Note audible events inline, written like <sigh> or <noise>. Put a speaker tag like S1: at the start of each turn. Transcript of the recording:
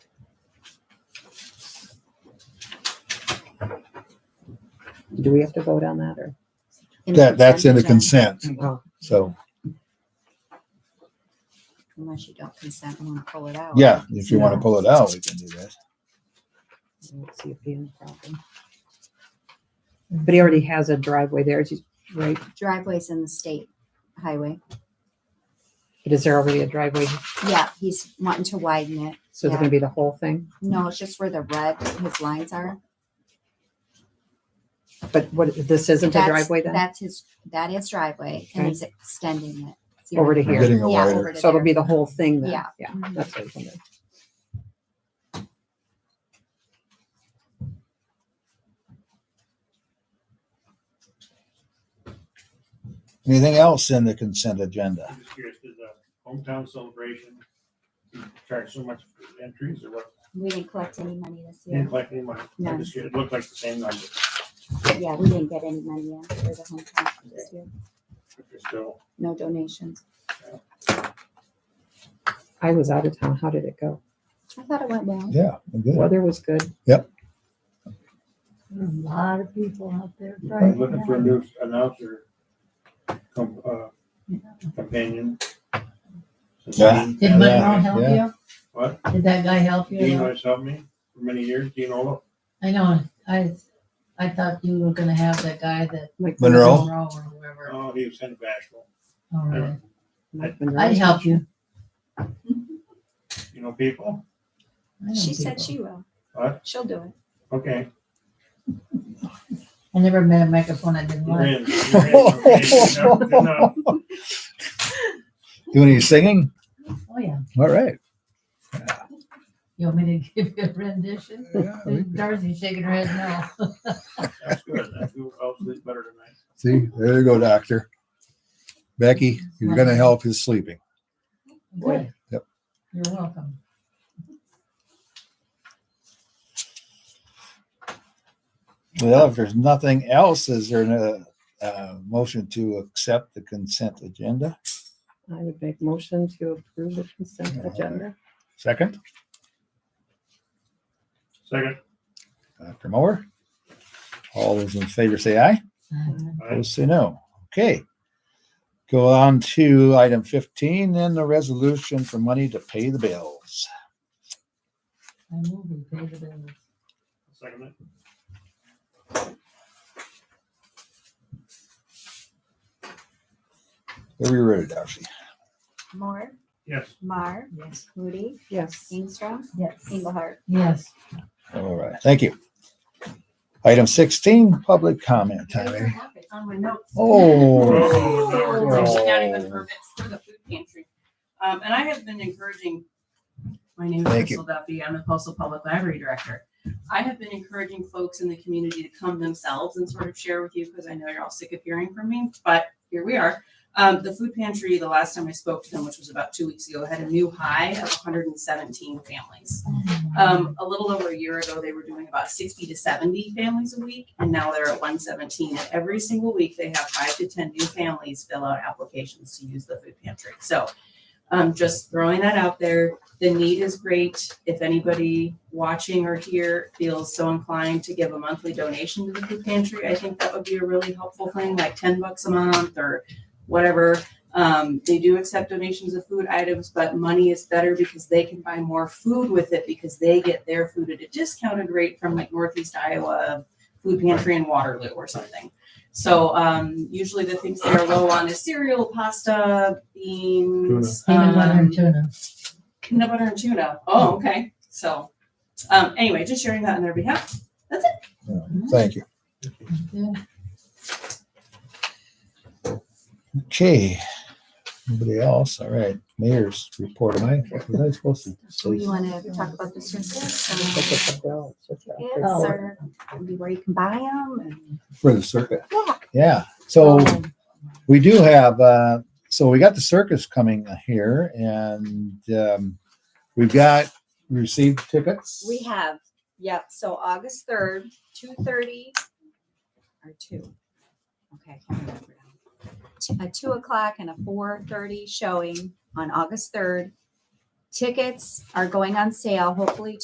S1: Do we have to vote on that or?
S2: In
S3: That, that's in a
S2: agenda,
S3: consent,
S1: Oh,
S3: so,
S2: Unless you don't consent and want to pull it out.
S3: yeah, if you want to pull it out, we can do that.
S1: let's see if he has a problem. But he already has a driveway there, is he- right?
S2: Driveways in the state highway.
S1: But is there already a driveway?
S2: Yeah, he's wanting to widen it.
S1: So it's gonna be the whole thing?
S2: No, it's just where the red, his lines are.
S1: But what, this isn't a
S2: That's-
S1: driveway then?
S2: That's his, that is driveway and
S1: Okay.
S2: he's extending it. See
S1: Over to
S2: where-
S3: We're
S1: here.
S3: getting a
S2: Yeah,
S3: wider,
S2: over to
S1: So it'll
S2: there.
S1: be the whole thing then?
S2: Yeah.
S1: Yeah,
S2: Mhm.
S1: that's what I was wondering.
S3: anything else in the consent agenda?
S4: I'm just curious, did the hometown celebration charge so much for entries or what?
S2: We didn't collect any money this
S4: Didn't
S2: year.
S4: collect any money. I'm just curious, It looked like the same number.
S2: Yeah, we didn't get any money in for the hometown this year.
S4: but they're Still,
S2: No donations.
S1: I was out of town. How did it go?
S2: I thought it went well.
S3: Yeah, we're good.
S1: Weather was good.
S5: There are A lot of people out there
S4: I'm
S5: right
S4: looking for a
S5: now.
S4: new announcer com- uh, companion.
S3: Yeah.
S5: Did my mom
S4: Yeah.
S5: help
S3: Yeah.
S5: you?
S4: What?
S5: Did that guy help
S4: Dean
S5: you?
S4: always helped me for many years, Dean Olaf.
S5: I know, I, I thought you were gonna have that guy that.
S1: Mike
S3: Monroe?
S5: Monroe or whoever.
S4: Oh, he was kind of bashful.
S5: All right.
S1: Mike Monroe.
S5: I'd help you.
S4: You know people?
S5: I know
S2: She said
S5: people.
S2: she will.
S4: What?
S2: She'll do it.
S4: Okay.
S5: I never met a microphone I didn't
S4: You're
S5: like.
S4: in. You're in. Okay, good enough, good enough.
S3: Doing any singing?
S5: Oh, yeah.
S3: All right.
S5: You want me to <laughs> give you a rendition?
S3: Yeah, we-
S5: Darcy's shaking her head <laughs> no.
S4: That's good. That's good. I'll sleep better tonight.
S3: See, there you go, doctor. Becky, you're gonna help his sleeping.
S5: Good.
S3: Yep.
S5: You're welcome.
S3: Well, if there's nothing else, is there a, uh motion to accept the consent agenda?
S1: I would make motion to approve the consent agenda.
S3: Second,
S4: Second.
S3: Dr. Moore? All those in favor say aye.
S5: Uh,
S4: all right.
S3: Opposed, say no. Okay. Go on to item fifteen, then the resolution for money to pay the bills.
S5: I move we pay the bills.
S4: Second. it.
S3: Very rude, Darcy.
S2: Moore,
S4: Yes.
S2: Mar,
S5: Yes.
S2: Moody,
S1: Yes.
S2: Ingstrom,
S5: Yes.
S2: Engelhardt.
S5: Yes.
S3: All right, thank you. Item sixteen, public comment time. eh?
S6: on my notes.
S3: Oh,
S4: Oh,
S6: It's
S4: no.
S6: actually not even for, it's for the food pantry. Um, and I have been encouraging, my name is
S3: Thank you.
S6: Crystal Duffy, I'm the Postal Public Library Director. I have been encouraging folks in the community to come themselves and sort of share with you, because I know you're all sick of hearing from me, but here we are. Um, the food pantry, the last time I spoke to them, which was about two weeks ago, had a new high of hundred and seventeen families. Um, a little over a year ago, they were doing about sixty to seventy families a week, and now they're at one seventeen. And every single week, they have five to ten new families fill out applications to use the food pantry. So, um, just throwing that out there. The need is great. If anybody watching or here feels so inclined to give a monthly donation to the food pantry, I think that would be a really helpful thing, like ten bucks a month or whatever. Um, they do accept donations of food items, but money is better because they can buy more food with it because they get their food at a discounted rate from like Northeast Iowa Food Pantry in Waterloo or something. So um, usually the things they are low on is cereal, pasta, beans,
S5: Peanut butter
S6: um,
S5: and tuna.
S6: peanut butter and tuna. Oh, okay. So um, anyway, just sharing that on their behalf. That's it.
S3: thank you.
S5: Good.
S3: Okay. Anybody else? All right, mayor's report. Am I, was I supposed to?
S2: Do you
S3: say-
S2: want to talk about the circus?
S1: That's what the bill- that's what the-
S2: It's or maybe where you can buy them and.
S3: For the circuit.
S2: Yeah.
S3: Yeah, so
S4: Oh.
S3: we do have, uh, so we got the circus coming here and, um, we've got, we received tickets.
S2: We have, yep, so August third, two thirty, or two. Okay, I can't remember now. T- A two o'clock and a four thirty showing on August third. Tickets are going on sale, hopefully